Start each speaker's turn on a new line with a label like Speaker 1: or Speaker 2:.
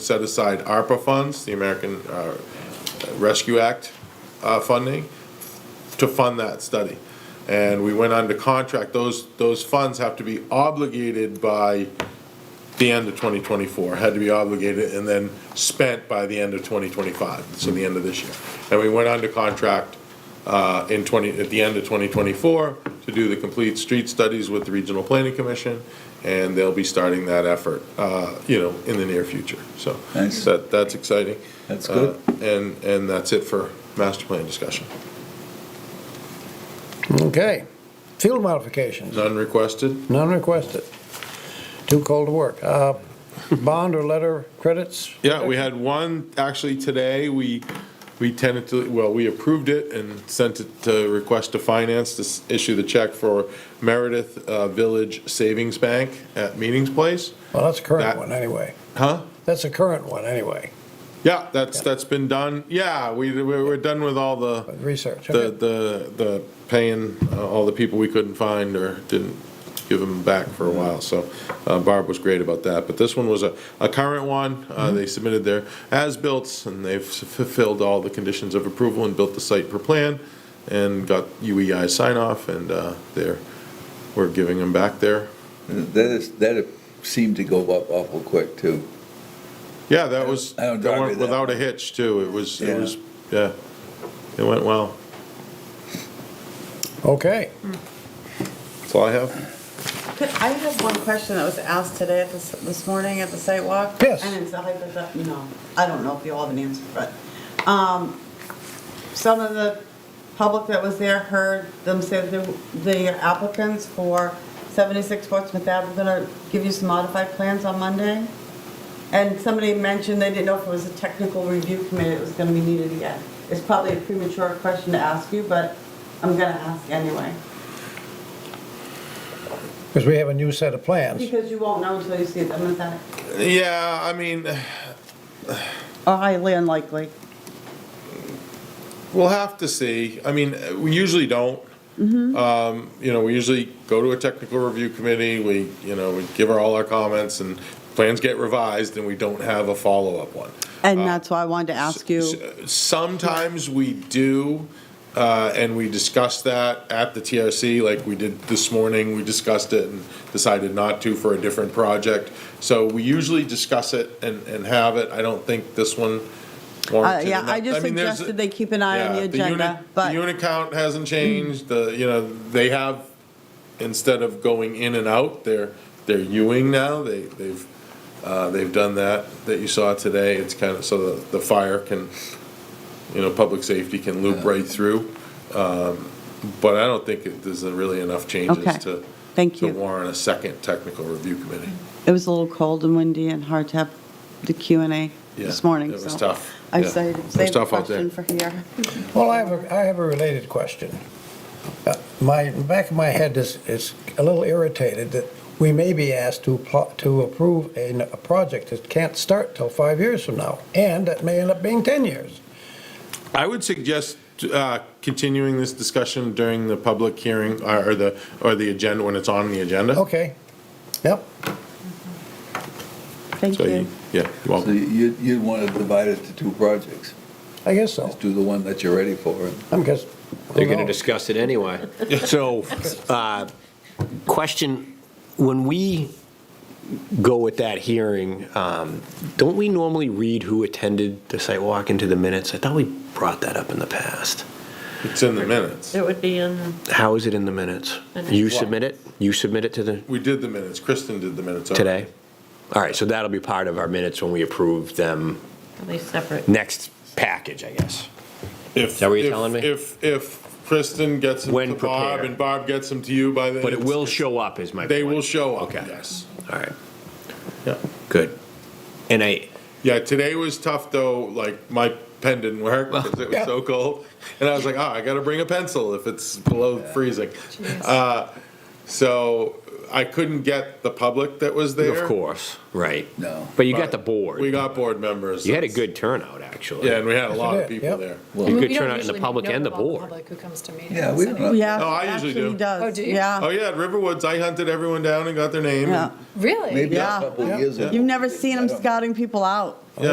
Speaker 1: set aside ARPA funds, the American uh, Rescue Act uh, funding, to fund that study. And we went under contract, those, those funds have to be obligated by the end of 2024, had to be obligated and then spent by the end of 2025, so the end of this year. And we went under contract uh, in 20, at the end of 2024 to do the complete street studies with the Regional Planning Commission, and they'll be starting that effort, uh, you know, in the near future, so.
Speaker 2: Nice.
Speaker 1: That, that's exciting.
Speaker 2: That's good.
Speaker 1: Uh, And, and that's it for master plan discussion.
Speaker 3: Okay. Field modifications,
Speaker 1: None requested?
Speaker 3: none requested. Too cold to work. Uh, Bond or letter credits?
Speaker 1: Yeah, we had one, actually, today, we, we tentatively, well, we approved it and sent it to request to finance to s- issue the check for Meredith uh, Village Savings Bank at Meetings Place.
Speaker 3: Well, that's a current
Speaker 1: That-
Speaker 3: one, anyway.
Speaker 1: Huh?
Speaker 3: That's a current one, anyway,
Speaker 1: Yeah, that's, that's been done. Yeah, we, we're we're done with all the,
Speaker 3: but research.
Speaker 1: the,
Speaker 3: okay.
Speaker 1: the, the paying uh, all the people we couldn't find or didn't give them back for a while. So uh, Barb was great about that. But this one was a, a current one. Uh, They submitted their as-built and they've fulfilled all the conditions of approval and built the site per plan and got E UEI sign-off and uh, they're, we're giving them back their
Speaker 2: That is, that seemed to go up awful quick, too.
Speaker 1: Yeah, that was,
Speaker 2: I
Speaker 1: that
Speaker 2: don't drive
Speaker 1: went
Speaker 2: it that
Speaker 1: without a
Speaker 2: way.
Speaker 1: hitch too. It was, it
Speaker 2: Yeah.
Speaker 1: was, yeah, it went well.
Speaker 3: Okay.
Speaker 1: That's all I have.
Speaker 4: Could- I have one question that was asked today at this, this morning at the site walk.
Speaker 3: Yes.
Speaker 4: And it's a hypothetical, no, I don't know if you all have an answer for it. Um, some of the public that was there heard them say that the- the applicants for 76 Portsmouth Ave were gonna give you some modified plans on Monday. And somebody mentioned they didn't know if it was a technical review committee that was gonna be needed again. It's probably a premature question to ask you, but I'm gonna ask anyway.
Speaker 3: Because we have a new set of plans.
Speaker 4: Because you won't know until you see them, is that?
Speaker 1: Yeah, I mean,
Speaker 4: Or highly unlikely.
Speaker 1: We'll have to see. I mean, uh, we usually don't.
Speaker 4: Mm-hmm.
Speaker 1: Um, You know, we usually go to a technical review committee, we, you know, we give her all our comments, and plans get revised, and we don't have a follow-up one.
Speaker 4: And that's why I wanted to ask you,
Speaker 1: S- Sometimes we do, uh, and we discuss that at the TRC, like we did this morning, we discussed it and decided not to for a different project. So we usually discuss it and, and have it. I don't think this one
Speaker 4: uh,
Speaker 1: warranted.
Speaker 4: yeah,
Speaker 1: enough.
Speaker 4: I just
Speaker 1: mean, there's-
Speaker 4: suggested they keep an eye on the
Speaker 1: yeah,
Speaker 4: agenda,
Speaker 1: unit- The
Speaker 4: but,
Speaker 1: unit count hasn't changed, the, you know, they have, instead of going in and out, they're, they're Ewing now, they, they've, uh, they've done that, that you saw today, it's kind of, so the, the fire can, you know, public safety can loop right through. Um, But I don't think it- there's really enough changes
Speaker 4: Okay.
Speaker 1: to,
Speaker 4: thank
Speaker 1: to
Speaker 4: you.
Speaker 1: warrant a second technical review committee.
Speaker 4: It was a little cold and windy and hard to have the Q and A this
Speaker 1: Yeah,
Speaker 4: morning,
Speaker 1: It was
Speaker 4: so.
Speaker 1: tough.
Speaker 4: I
Speaker 1: yeah.
Speaker 4: saved,
Speaker 1: It was
Speaker 4: saved the
Speaker 1: tough out there.
Speaker 4: question for here.
Speaker 3: Well, I have a, I have a related question. Uh, My, back of my head is, is a little irritated that we may be asked to, pl- to approve a, n- a project that can't start till five years from now, and that may end up being 10 years.
Speaker 1: I would suggest uh, continuing this discussion during the public hearing uh, or or the, or the agenda, when it's on the agenda.
Speaker 3: Okay. Yep.
Speaker 4: Thank
Speaker 1: So
Speaker 4: you.
Speaker 1: you- Yeah, you're
Speaker 2: So
Speaker 1: welcome.
Speaker 2: you'd, you'd want to divide it to two projects.
Speaker 3: I guess so.
Speaker 2: Do the one that you're ready for.
Speaker 3: I'm guess.
Speaker 5: They're going to discuss it anyway. So, uh, question, when we go with that hearing, um, don't we normally read who attended the site walk into the minutes? I thought we brought that up in the past.
Speaker 1: It's in the minutes.
Speaker 6: It would be in,
Speaker 5: How is it in the minutes? You submit it? You submit it to the,
Speaker 1: We did the minutes. Kristen did the minutes. already.
Speaker 5: today? All right, so that'll be part of our minutes when we approve them
Speaker 6: at least separate.
Speaker 5: next package, I guess.
Speaker 1: If-
Speaker 5: Is that what you're
Speaker 1: if-
Speaker 5: telling me?
Speaker 1: If, if Kristen gets them
Speaker 5: When
Speaker 1: to Bob
Speaker 5: prepared.
Speaker 1: and Bob gets them to you by the.
Speaker 5: But it will show up is my point.
Speaker 1: They will show up,
Speaker 5: Okay.
Speaker 1: yes.
Speaker 5: All right,
Speaker 1: Yeah.
Speaker 5: good. And I,
Speaker 1: Yeah, today was tough though, like my pen didn't work because it was so cold. And I was like, oh, I gotta bring a pencil if it's below freezing. Uh, So I couldn't get the public that was there.
Speaker 5: Of course, right.
Speaker 2: No.
Speaker 5: But you got
Speaker 1: but
Speaker 5: the board.
Speaker 1: We got board members.
Speaker 5: You had a good turnout, actually.
Speaker 1: Yeah, and we had a lot of
Speaker 3: Yes, we did,
Speaker 1: people
Speaker 3: yeah.
Speaker 1: there.
Speaker 2: Well,
Speaker 5: You
Speaker 6: I mean,
Speaker 5: could
Speaker 6: we don't
Speaker 5: turn out in the
Speaker 6: usually
Speaker 5: public
Speaker 6: know
Speaker 5: and the
Speaker 6: about
Speaker 5: board.
Speaker 6: Public who comes to meetings.
Speaker 2: Yeah, we don't know.
Speaker 4: Yeah,
Speaker 1: No, I usually
Speaker 4: actually
Speaker 1: do.
Speaker 4: does.
Speaker 6: Oh, do you?
Speaker 1: Oh,
Speaker 4: Yeah,
Speaker 1: yeah, at Riverwoods, I hunted everyone down and got their name. and-
Speaker 4: yeah.
Speaker 6: Really?
Speaker 2: Maybe a
Speaker 4: Yeah.
Speaker 2: couple years ago.
Speaker 4: You've never seen
Speaker 2: I
Speaker 4: them
Speaker 2: don't-
Speaker 4: scouting people out.